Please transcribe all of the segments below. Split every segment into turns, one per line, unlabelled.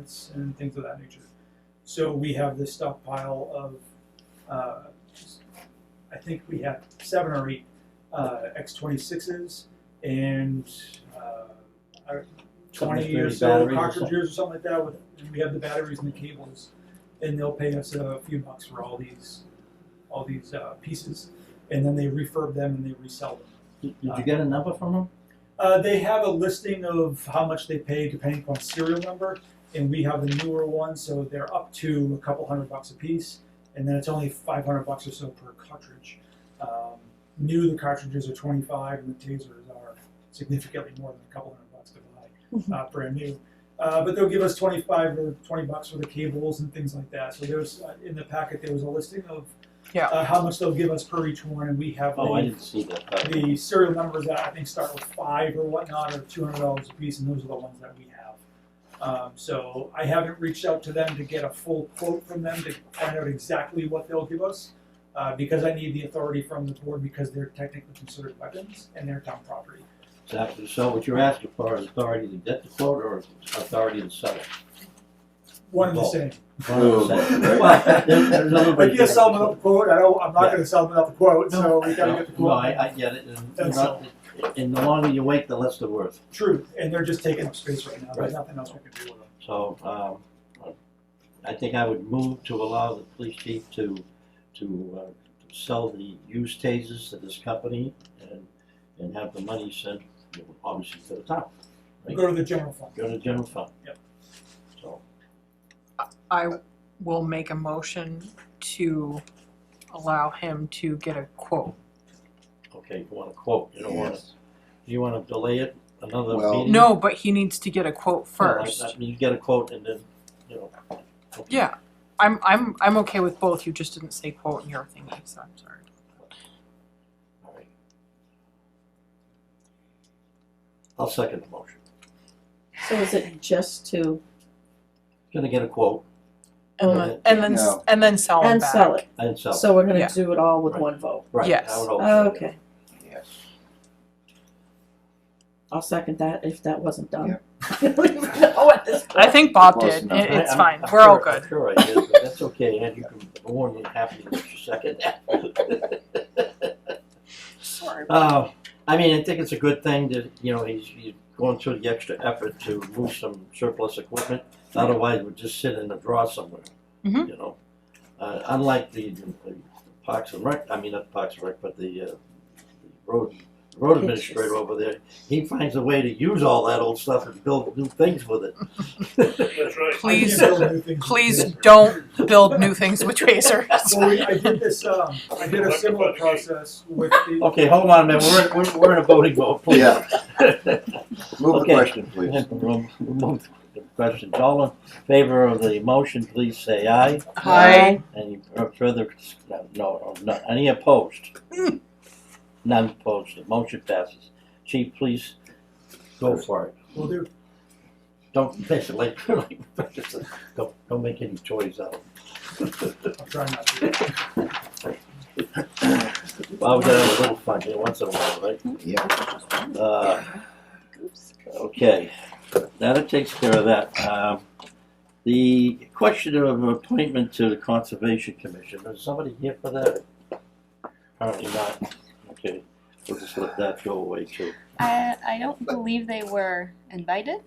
plants and things of that nature. So we have this stockpile of, uh, I think we have seven or eight uh, X twenty sixes and uh, our twenty or
Thirty
so
batteries or
cartridges or something like that. With and we have the batteries and the cables, and they'll pay us a few bucks for all these, all these uh, pieces, and then they refurb them and they resell them.
Did did you get a number from him?
Uh, they have a listing of how much they pay depending upon serial number, and we have the newer one, so they're up to a couple hundred bucks a piece, and then it's only five hundred bucks or so per cartridge. Um, new, the cartridges are twenty-five, and the tasers are significantly more than a couple hundred bucks to buy, uh, brand new. Uh, but they'll give us twenty-five or twenty bucks for the cables and things like that. So there's uh, in the packet there was a listing of
Yeah.
uh, how much they'll give us per each one, and we have
Oh,
the
I didn't see that. Uh,
the serial numbers that I think start with five or whatnot are two hundred dollars a piece, and those are the ones that we have. Um, so I haven't reached out to them to get a full quote from them to find out exactly what they'll give us, uh, because I need the authority from the board because they're technically considered weapons and they're town property.
Exactly, so what you're asking for is authority to get the quote or authority to sell it?
One and the
Well,
same.
Well, there- there's other
I
ways
can't
to
sell them
get the
without the quote. I don't. I'm not
Yeah.
going to sell them without the quote, so we got to
No,
get the quote.
No, I, I get it, and, you
That's
know, and the longer you wait, the less they're worth,
True, and they're just taking up space right now. There's
Right.
nothing else we can do with them.
so, um, I think I would move to allow the police chief to, to, uh, to sell the used tasers to this company and, and have the money sent, obviously, to the town, Right.
Go to the general fund.
go to general fund.
Yep.
So,
I will make a motion to allow him to get a quote.
okay, you wanna quote, you don't wanna Do you wanna delay it another
Well-
meeting?
No, but he needs to get a quote
No, I-
first.
I mean, you get a quote and then, you know. okay.
Yeah, I'm, I'm, I'm okay with both, you just didn't say quote in your thingy, so I'm sorry.
All right. I'll second the motion.
So is it just to,
Gonna get a quote
And
Yeah.
then, and then, s-
No.
and then sell him
and
back.
sell it,
and sell.
so we're
Yeah.
gonna do it all with
Right.
one vote?
Right, I
Yes.
would hope so, yeah.
Okay,
Yes.
I'll second that if that wasn't
Yeah.
done. We don't know at this
I
point.
think Bob
Close
did,
enough.
It-
I-
it's
I'm-
fine,
I'm
we're all
sure- I'm
good.
Sure I did, but that's okay, and you can warn me happy if you second that.
Sorry.
Uh, I mean, I think it's a good thing that, you know, he's, he's going through the extra effort to move some surplus equipment. Otherwise, we'd just sit in a drawer somewhere,
Mhm.
you know? Uh, unlike the, the Parks and Rec, I mean, not Parks and Rec, but the, uh, the road, road administrator
Pictures.
over there, he finds a way to use all that old stuff and build new things with it.
That's right.
Please-
I can't build new things with
Please
this.
don't build new things with tasers.
Well, we, I did this, um, I did a similar process with the.
Okay, hold on, man, we're, in- we're, we're in a voting vote, please.
Yeah. Move
Okay.
the question, please.
We'll move to Questions, all in favor of the motion, please say aye.
Hi.
Any further, no, no, no, any opposed? None opposed, the motion passes. Chief, please go for it.
Will do.
Don't, basically, don't, don't make any choice out of
I'll try not to.
it. Well, we gotta have a little fun here once in a while, right?
Yeah.
Uh, Okay, now that takes care of that. Um, The question of appointment to the Conservation Commission, is somebody here for that? Apparently not. Okay, we'll just let that go away too.
I, I don't believe they were invited.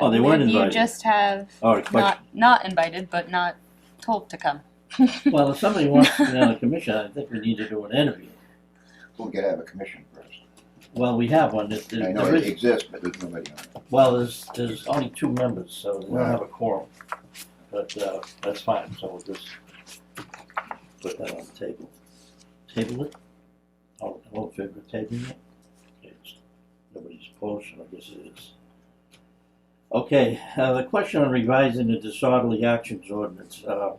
I
Oh, they weren't
believe
invited.
You just have
All right, question.
not, not invited, but not told to come.
Well, if somebody wants to be on the commission, I think we need to do an interview.
We'll get out of a commission first.
Well, we have one, There's-
I
there's-
know
there
it
is,
exists, but there's nobody on it.
well, there's, there's only two members, so we don't have a quorum. But, uh, that's fine, so we'll just put that on the table. Table it? All, all in favor of tabling it? Okay, it's- Nobody's opposed, so I guess it is. Okay, uh, the question on revising the disorderly actions ordinance, uh,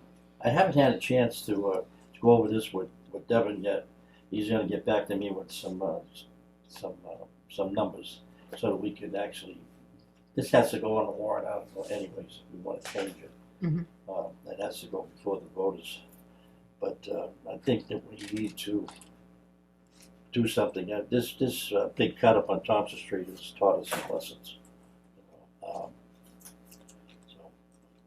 I haven't had a chance to, uh, to go over this with, with Devin yet. He's gonna get back to me with some, uh, s- some, uh, some numbers, so that we could actually, this has to go on a warrant article anyways, if we wanna change it.
Mhm.
Um, that has to go before the voters, but, uh, I think that we need to do something, uh, this, this, uh, big cut up on Thompson Street has taught us some lessons. Um,